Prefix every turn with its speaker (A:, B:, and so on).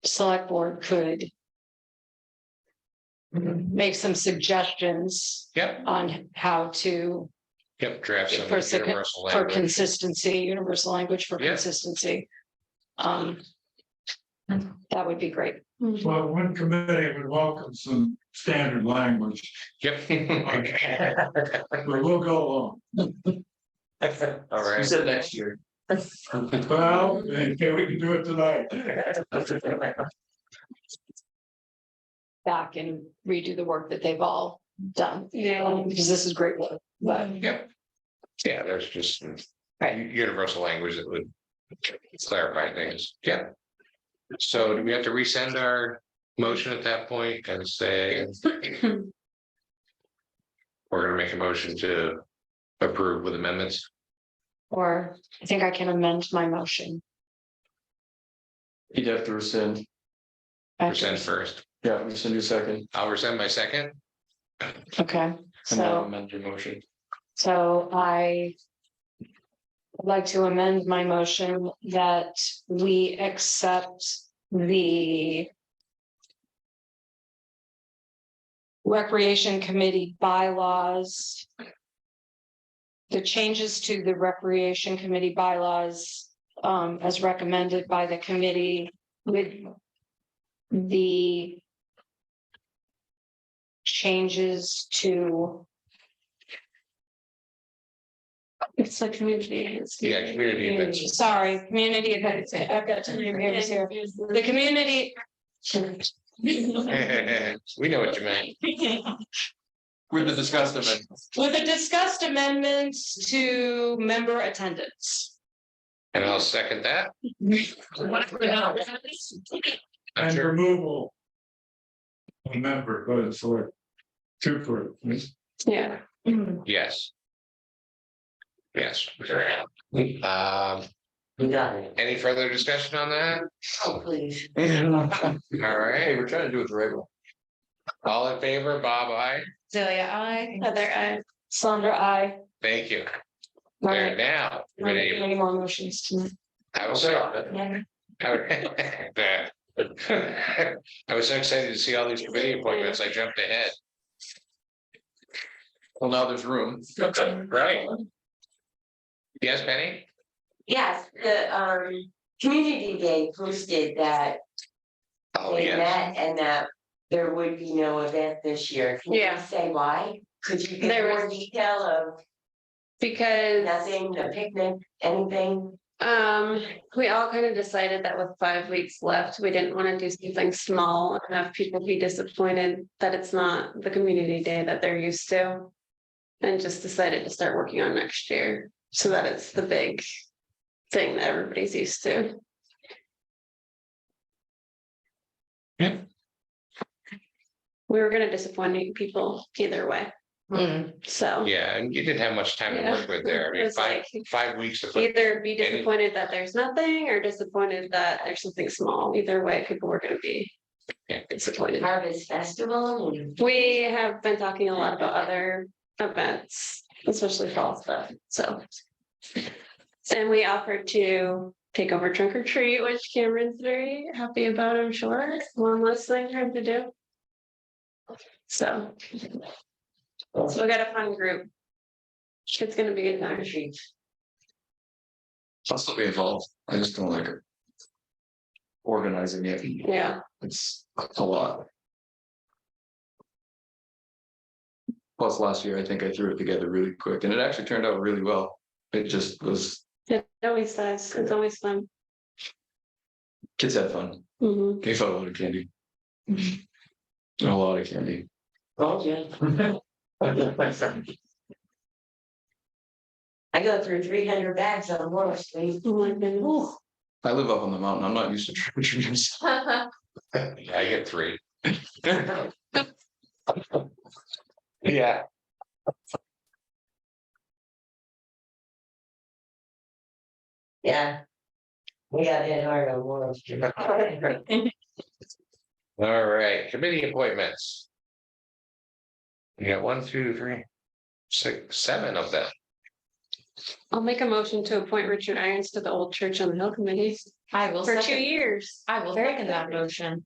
A: select board could. Make some suggestions
B: Mm-hmm. Yep,
A: on how to,
B: yep, draft some
A: For second-
B: universal
A: for
B: language.
A: consistency, universal language for
B: Yeah.
A: consistency. Um.
B: Mm-hmm.
A: That would be great.
C: Well, one committee would welcome some standard language,
B: Yep.
C: but we'll go along.
B: All
D: You
B: right.
D: said next year.
C: Well, okay, we can do it tonight.
A: back and redo the work that they've all done. Yeah. Because this is great work, but
B: Yeah, there's just
A: Right.
B: u- universal language that would clarify things. Yeah. So do we have to resend our motion at that point and say we're gonna make a motion to approve with amendments?
A: or I think I can amend my motion.
D: You'd have to rescind.
B: Resend first.
D: Yeah, rescind your second.
B: I'll resend my second.
A: Okay,
D: And then
A: so,
D: amend your motion.
A: so I would like to amend my motion that we accept the Recreation Committee bylaws. The changes to the Recreation Committee bylaws um as recommended by the committee with the changes to it's like community.
B: Yeah, community events.
A: Sorry, community events. I've got two names here. The community.
B: We know what you meant.
D: We've discussed them
A: With the discussed amendments to member attendance.
B: And I'll second that. I'm
C: And
B: sure.
C: removal. of A member, but it's like. Two for,
A: Yeah. Oh,
B: Yes. Yes. Um,
D: We got it.
B: any further discussion on that?
A: Oh, please.
B: All
D: Hey,
B: right,
D: we're trying to do it the right way.
B: all in favor, Bob, I,
A: Delia, I. Heather, I. Sandra, I.
B: thank you.
A: All
B: There
A: right.
B: now.
A: Not making Any more motions tonight?
B: I was so. I was so excited to see all these committee appointments. I jumped ahead.
D: Well, now there's room.
B: Right. Yes, Penny?
E: Yes, the um community day posted that
B: Oh,
E: they
B: yes.
E: met and that there would be no event this year. Can you
A: Yeah.
E: say why? Could you give
A: There
E: more
A: was-
E: detail of
F: Because
E: nothing, a picnic, anything?
F: um, we all kind of decided that with five weeks left, we didn't want to do something small and have people be disappointed that it's not the community day that they're used to. And just decided to start working on next year so that it's the big thing that everybody's used to.
B: Yeah.
F: We were gonna disappoint people either way, Mm. so.
B: Yeah, and you didn't have much time to work with there. I mean,
F: It's
B: five,
F: like-
B: five weeks to put
F: Either be
B: Any-
F: disappointed that there's nothing or disappointed that there's something small. Either way, people were gonna be
B: Yeah.
F: disappointed.
E: Harvest festival and
F: We have been talking a lot about other events, especially fall stuff, so. And we offered to take over trunk or treat, which Cameron's very happy about, I'm sure. One less thing for him to do. So. So we got a fun group. It's gonna be a good time.
D: I'll still be involved. I just don't like it. Organizing it.
F: Yeah,
D: It's a lot. Plus, last year, I think I threw it together really quick and it actually turned out really well. It just was,
F: it always does. It's always fun.
D: kids had fun.
F: Mhm.
D: They felt a lot of candy. A lot of candy.
E: Oh, yeah. I go through three hundred bags on Water Street.
F: Oh my goodness.
E: Ooh.
D: I live up on the mountain. I'm not used to trick or treaters.
B: Yeah, I get three. Yeah.
E: Yeah. We got hit hard on Water Street.
B: All right, committee appointments. You got one, two, three, six, seven of them.
F: I'll make a motion to appoint Richard Irons to the Old Church on the Hill Committee
A: I will
F: for two
A: second,
F: years.
A: I will
F: Very
A: second that
F: good.
A: motion.